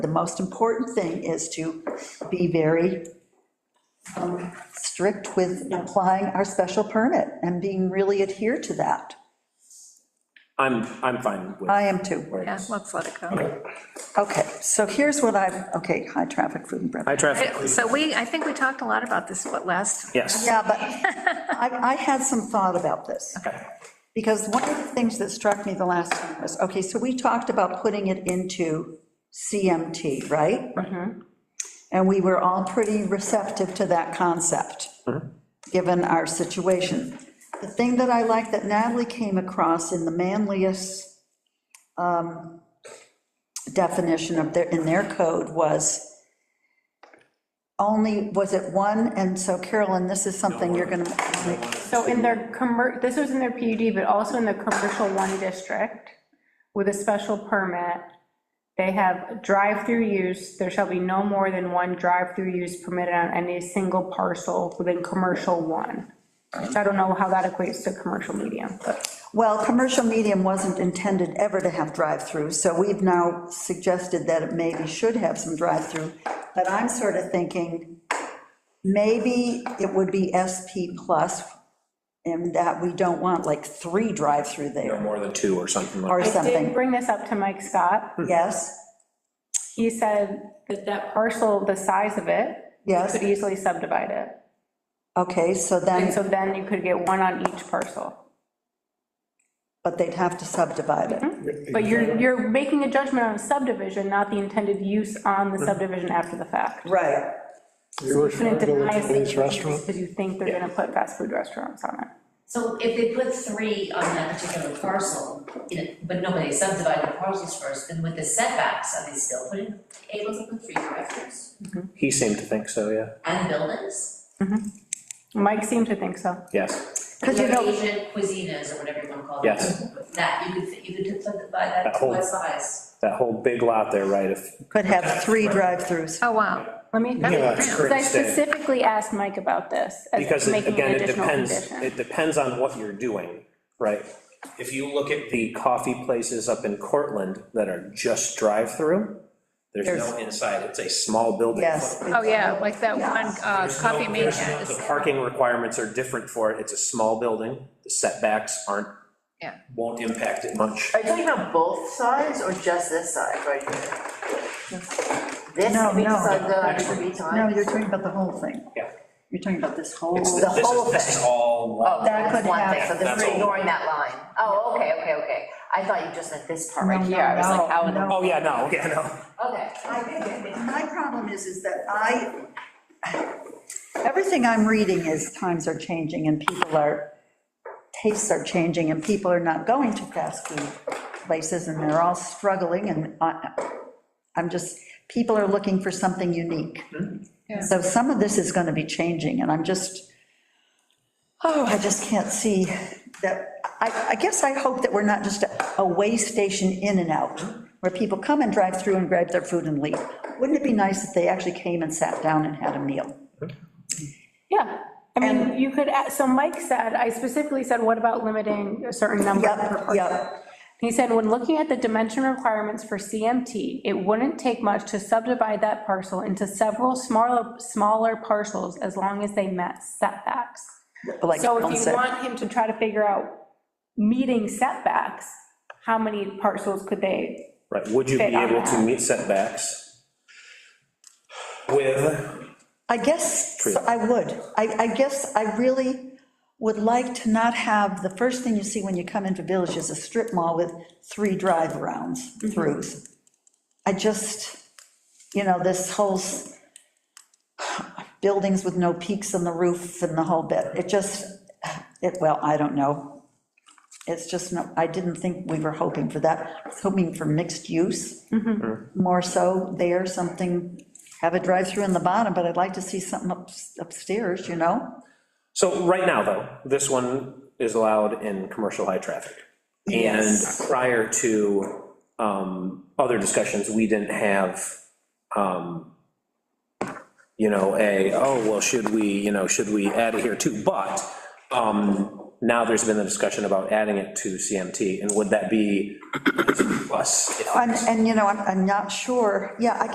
The most important thing is to be very um, strict with applying our special permit and being really adhere to that. I'm, I'm fine Uh, with I am too. where it Yeah, is. let's let it go. Okay, so here's what I've, okay, high traffic food and beverage. High traffic, So we, I think we talked a lot about this, what, last? yes. Yeah, but I, I had some thought about this. Okay. Because one of the things that struck me the last time was, okay, so we talked about putting it into CMT, right? And we were all pretty receptive to that concept, given our situation. The thing that I like that Natalie came across in the manliest um, definition of their, in their code was only, was it one? And so Carolyn, this is something you're going to, So in their commer, this was in their PUD, but also in the commercial one district, with a special permit, they have drive-through use, there shall be no more than one drive-through use permitted on any single parcel within commercial one. Which I don't know how that equates to commercial medium, but Well, commercial medium wasn't intended ever to have drive-through, so we've now suggested that it maybe should have some drive-through. But I'm sort of thinking, maybe it would be SP plus, and that we don't want like three drive-through No there, more than two or something like or that. I did something, bring this up to Mike Scott. Hmm. yes, He said that that parcel, the size of it, you yes, could easily subdivide it. okay, so And then, so then you could get one on each parcel. but they'd have to subdivide it. But you're, you're making a judgment on a subdivision, not the intended use on Mm-hmm. the subdivision after the fact. Right. You were trying to go to Chinese restaurant? Because you think they're gonna put fast food restaurants on it. So if they put three on that particular parcel, you know, but nobody subdivided the parcels first, then with the setbacks, are they still putting, able to put three drive-throughs He seemed to think so, yeah, and buildings? Mike seemed to think so. yes. Because you know, Asian cuisinas or whatever you wanna call it. Yes. That, you could, you could subdivide That that to whole- what size? That whole big lot there, right, if, could have three drive-throughs. Oh, wow. Let me, Yeah, That's it's because I great state. specifically asked Mike about this, as Because it- making again, an it additional depends, condition. it depends on what you're doing, right? If you look at the coffee places up in Cortland that are just drive-through, there's no inside, it's a small building. Yes. Oh, yeah, like that one uh, There's no- coffee there's no- maker. The parking requirements are different for it, it's a small building, the setbacks aren't, Yeah. won't impact it much. Are you talking about both sides or just this side right here? This No, could be no. subdivided three No, times? you're talking about the whole thing. Yeah. You're talking about this whole. It's, the this is, whole this is thing. all Oh, one. That that's could one have- thing, so this That's is all. ignoring that line. Oh, okay, okay, okay. I thought you just meant this part right No, no, here. I was no, like, how in the? no. Oh, yeah, no, yeah, no. Okay. My problem is, is that I, everything I'm reading is times are changing and people are, tastes are changing and people are not going to fast food places and they're all struggling and I- I'm just, people are looking for something unique. So some of this is going to be changing and I'm just, oh, I just can't see that, I, I guess I hope that we're not just a- a way station in and out, where people come and drive through and grab their food and leave. Wouldn't it be nice if they actually came and sat down and had a meal? Yeah, I mean, you could, add- so Mike said, I specifically said, what about limiting a certain number Yep, per person? yep. He said, when looking at the dimension requirements for CMT, it wouldn't take much to subdivide that parcel into several smaller, smaller parcels as long as they met setbacks. Like So Ellen if you said. want him to try to figure out meeting setbacks, how many parcels could they? Right, would you be Fit on able to that. meet setbacks? With, I guess so I would. I, I guess I really would like to not have, the first thing you see when you come into Village is a strip mall with three drive rounds, throughs. I just, you know, this whole s- buildings with no peaks on the roof and the whole bit, it just, it, well, I don't know. It's just, no. I didn't think we were hoping for that. I was hoping for mixed use more so there, something, have a drive-through in the bottom, but I'd like to see something up- upstairs, you know? so right now, though, this one is allowed in commercial high traffic. And prior to um, other discussions, we didn't have, um, you know, a, oh, well, should we, you know, should we add it here too? But um, now there's been the discussion about adding it to CMT, and would that be plus? And, and, you know, I'm, I'm not sure, yeah, I